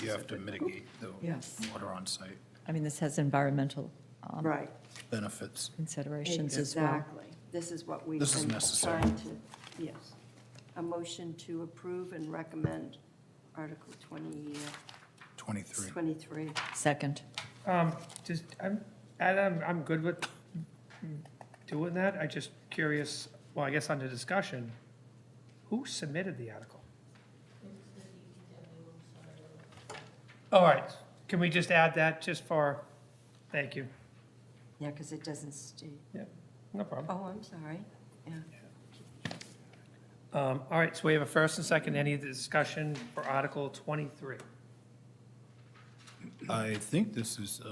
You have to mitigate the Yes. water on site I mean, this has environmental um, Right, benefits. considerations as well. exactly. This is what we've This is been necessary. trying to, yes. A motion to approve and recommend Article 20, uh, 23. 23. Second, Um, just, I'm, Adam, I'm good with doing that, I just curious, well, I guess under discussion, who submitted the article? All right, can we just add that just for, thank you, Yeah, because it doesn't state. no problem. Oh, I'm sorry. Yeah. Um, all right, so we have a first and second, any discussion for Article twenty-three? I think this is, uh,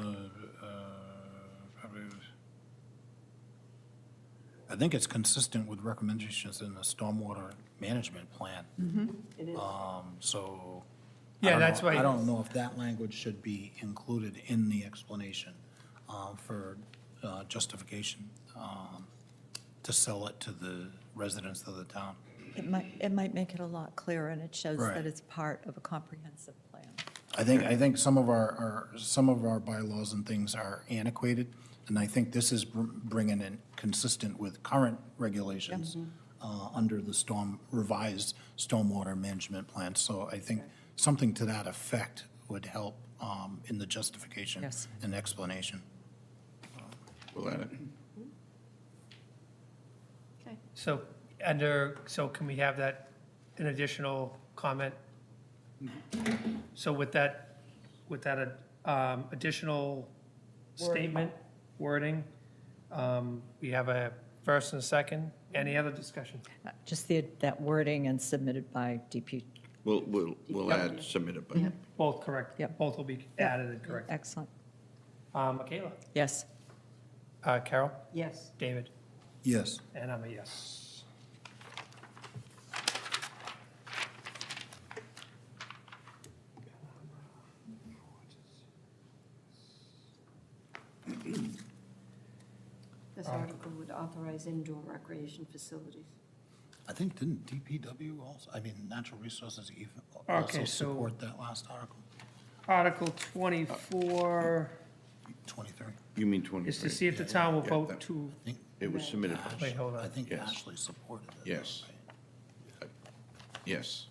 uh, probably, I think it's consistent with recommendations in the stormwater management plan. It is. Um, So. I Mm. Yeah, don't that's know- why- I don't know if that language should be included in the explanation uh, for uh, justification um, to sell it to the residents of the town. it might, it might make it a lot clearer, and it shows Right. that it's part of a comprehensive plan. I think, I think some of our, our, some of our bylaws and things are antiquated, and I think this is br- bringing in consistent with current regulations uh, under the storm, revised stormwater management plan. So I think something to that effect would help um, in the justification Yes. and explanation. We'll add it. Okay. So, under, so can we have that, an additional comment? So with that, with that um, additional statement, wording, um, we have a first and a second, any other discussion? Uh, Just the, that wording and submitted by DP, We'll, we'll, we'll add submitted by. Both correct? Yep. Both will be added and correct. excellent. Uh, Michaela? Yes, Uh, Carol? Yes. David? Yes. And I'm a yes. This Uh, article would authorize indoor recreation facilities. I think, didn't DPW also, I mean, Natural Resources even Okay, also so- support that last article, Article 24 23? You mean is to 23? see if the town will Yeah, vote that- to, I think It was submitted, by- Ash- Wait, hold on. I think Yes. Ashley supported it. Yes. right? yes.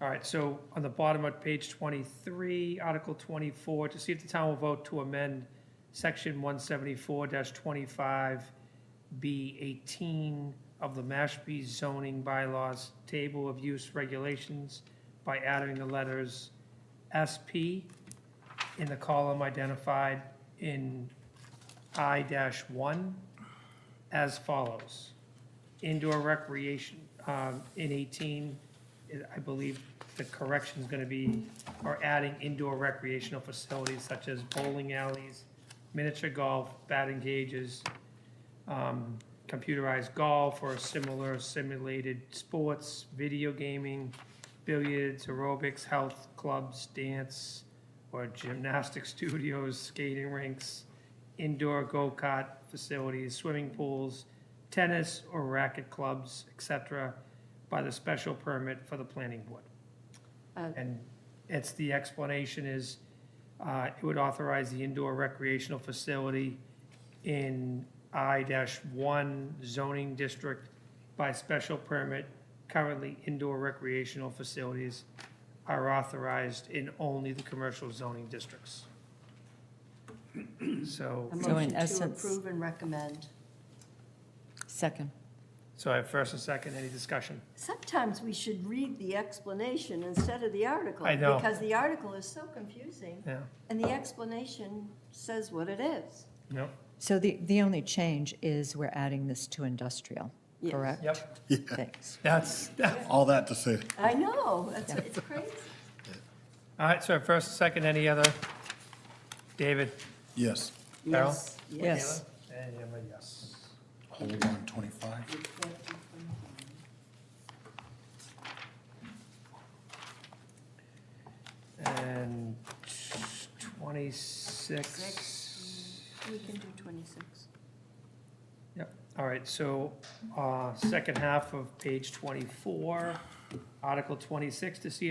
all right, so on the bottom of page 23, Article 24, to see if the town will vote to amend Section 174-25B18 of the Mashpee zoning bylaws table of use regulations by adding the letters SP in the column identified in I-1 as follows. Indoor recreation um, in 18, I believe the correction's going to be, or adding indoor recreational facilities such as bowling alleys, miniature golf, batting cages, um, computerized golf or similar simulated sports, video gaming, billiards, aerobics, health clubs, dance, or gymnastic studios, skating rinks, indoor go-kart facilities, swimming pools, tennis or racket clubs, et cetera, by the special permit for the planning board. Uh, And it's, the explanation is, uh, it would authorize the indoor recreational facility in I one zoning district by special permit. Currently, indoor recreational facilities are authorized in only the commercial zoning districts. So, So A in motion to essence- approve and recommend. second. so I have first and second, any discussion? Sometimes we should read the explanation instead of the article. I know. Because the article is so confusing, Yeah, and the explanation says what it is. no, So the, the only change is we're adding this to industrial, Yes. correct? yep, Thanks. that's, All that to say. I know, that's, it's crazy. all right, so I have first and second, any other? David? Yes. Carol? Yes. Yes. And I'm a yes. Hold on, 25. And twenty-six. We can do 26. Yep, all right, so, uh, second half of page twenty-four, Article twenty-six, to see